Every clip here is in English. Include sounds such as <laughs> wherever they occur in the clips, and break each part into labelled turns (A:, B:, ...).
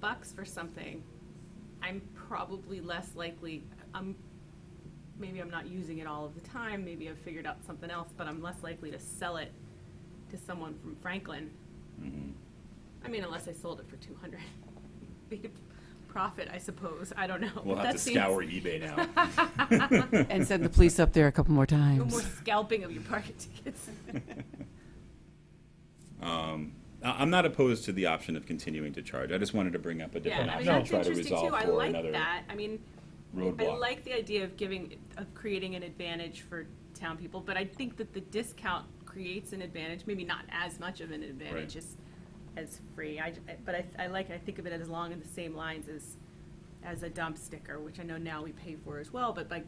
A: bucks for something, I'm probably less likely, I'm, maybe I'm not using it all of the time, maybe I've figured out something else, but I'm less likely to sell it to someone from Franklin.
B: Mm-hmm.
A: I mean, unless I sold it for two hundred. <laughs> Be a profit, I suppose, I don't know.
B: We'll
A: but
B: have to
A: that seems-
B: scour eBay
A: <laughs>
B: now.
C: And send the police up there a couple more
A: No more
C: times.
A: scalping of your <laughs> parking tickets.
B: I- I'm not opposed to the option of continuing to charge. I just wanted to bring up a different
A: Yeah, I mean,
B: option
A: that's
B: to try to
A: interesting
B: resolve
A: too, I
B: for
A: like
B: another.
A: that, I mean, I
B: roadblock.
A: like the idea of giving, of creating an advantage for town people, but I think that the discount creates an advantage, maybe not as much of an advantage as, as free, I, but I, I like, I think of it as along in the same lines as, as a dump sticker, which I know now we pay for as well, but like,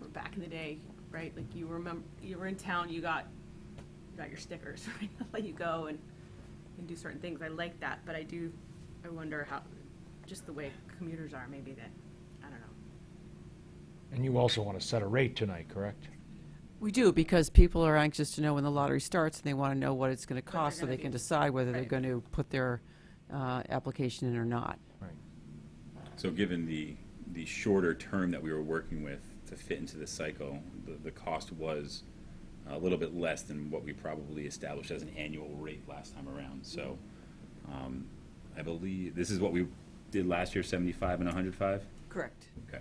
A: we're back in the day, right, like you remember, you were in town, you got, you got your stickers, <laughs> right, They'll let you go and, and do certain things, I like that, but I do, I wonder how, just the way commuters are, maybe that, I don't know.
D: And you also want to set a rate tonight, correct?
C: We do, because people are anxious to know when the lottery starts, and they want to know what it's going to cost, so
A: gonna
C: they can
A: be-
C: decide whether they're
A: right.
C: going to put their uh, application in or not.
D: Right.
B: So given the, the shorter term that we were working with to fit into the cycle, the, the cost was a little bit less than what we probably established as an annual rate last time around. So,
A: Mm-hmm.
B: um, I believe, this is what we did last year, seventy-five and hundred five?
C: Correct.
B: Okay.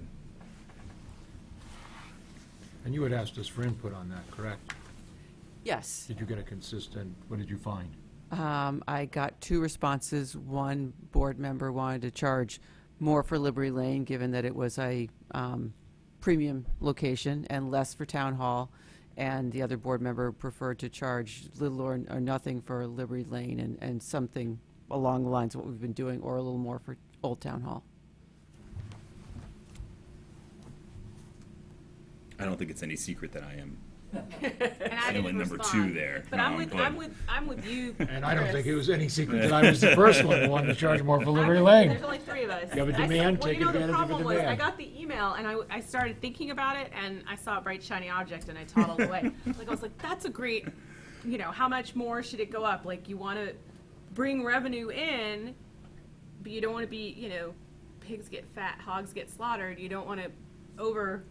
D: And you had asked us for input on that, correct?
C: Yes.
D: Did you get a consistent, what did you find?
C: Um, I got two responses. One board member wanted to charge more for Liberty Lane, given that it was a um, premium location, and less for Town Hall. And the other board member preferred to charge little or, or nothing for Liberty Lane and, and something along the lines of what we've been doing, or a little more for Old Town Hall.
B: I don't think it's any secret that I am
A: And I didn't
B: Feeling number two
A: respond.
B: there.
A: But
B: No,
A: I'm
B: I'm
A: with,
B: good.
A: I'm with, I'm with you.
D: <laughs> And I don't think it
A: Chris.
D: was any secret that I was the first one who wanted to charge more for Liberty Lane.
A: There's only three of us.
D: You have a
A: I said-
D: demand,
A: well, you
D: take
A: know, the
D: advantage of a
A: problem was, I
D: demand.
A: got the email and I, w- I started thinking about it and I saw a bright shiny object and I toddled
D: <laughs>
A: away. Like, I was like, that's a great, you know, how much more should it go up? Like, you want to bring revenue in, but you don't want to be, you know, pigs get fat, hogs get slaughtered. You don't want to over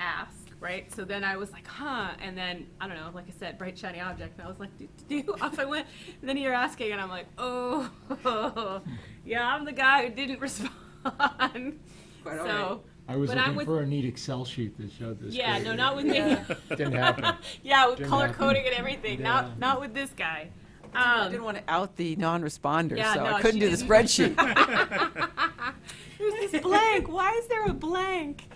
A: ask, right? So then I was like, huh. And then, I don't know, like I said, bright shiny object. And I was like, do, <laughs> do, do. Off I went. And then you're asking, and I'm like, oh, <laughs> yeah, I'm the guy who didn't <laughs> respond.
C: Quite all
A: so,
D: I was
A: but I'm
D: looking
A: with,
D: for a neat Excel sheet that showed this.
A: <laughs> yeah,
D: great.
A: no, not with me.
D: Didn't happen.
A: <laughs> yeah, with
D: Didn't
A: color
D: happen.
A: coding and everything.
D: Yeah.
A: Not, not with this guy.
C: I
A: Um,
C: <laughs> didn't want to out the non-responder,
A: Yeah,
C: so
A: no,
C: I couldn't
A: she
C: do the
A: didn't.
C: spreadsheet.
A: there's this blank. Why is there a blank?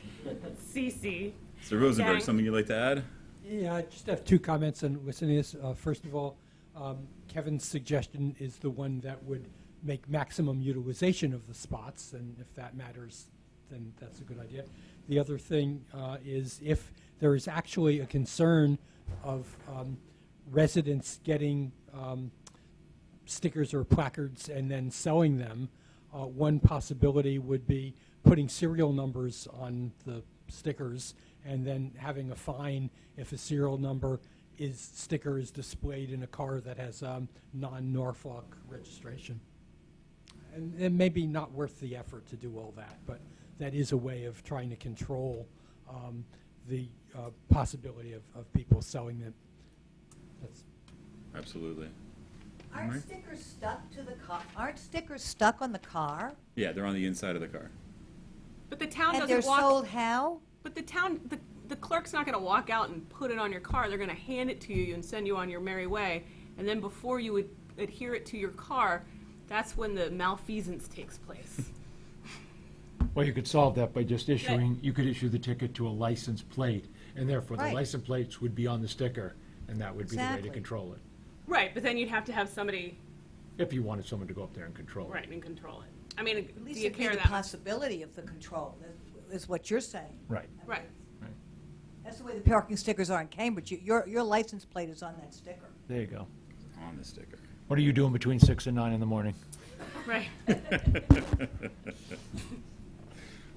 A: Cece.
B: Mr. Rosenberg,
A: Dang.
B: something you'd like to add?
E: Yeah, I just have two comments on listening to this. Uh, first of all, um, Kevin's suggestion is the one that would make maximum utilization of the spots, and if that matters, then that's a good idea. The other thing uh, is if there is actually a concern of um, residents getting um, stickers or placards and then selling them. Uh, one possibility would be putting serial numbers on the stickers and then having a fine if a serial number is sticker is displayed in a car that has um, non-Norfolk registration. And it may be not worth the effort to do all that, but that is a way of trying to control um, the uh, possibility of, of people selling them. That's
B: Absolutely.
F: Aren't
B: Right.
F: stickers stuck to the car, aren't stickers stuck on the car?
B: Yeah, they're on the inside of the car.
A: But the town
F: And they're
A: doesn't walk.
F: sold how?
A: But the town, the, the clerk's not gonna walk out and put it on your car, they're gonna hand it to you and send you on your merry way. And then before you would adhere it to your car, that's when the malfeasance takes
F: <laughs>
A: place.
D: Well, you could solve that by just issuing, you could issue the ticket to a license plate, and therefore the
F: Right.
D: license plates would be on the sticker, and that would be the way to
F: Exactly.
D: control it,
A: Right, but then you'd have to have somebody,
D: if you wanted someone to go up there and control it.
A: right, and control it. I mean,
F: At
A: do
F: least
A: you
F: it'd be
A: care
F: the
A: that? much?
F: possibility of the control, that- is what you're saying.
D: Right.
A: Right,
D: Right.
F: That's the way the parking stickers are in Cambridge. You- Your, your license plate is on that sticker.
D: There you go.
B: On the sticker.
D: What are you doing between six and nine in the morning?
A: right.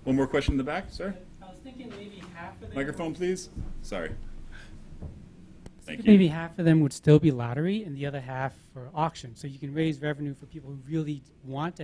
B: One more question in the back, sir?
G: I was thinking maybe half of them.
B: Microphone, please. Sorry. Thank
G: Maybe
B: you.
G: half of them would still be lottery, and the other half for auction. So you can raise revenue for people who really want to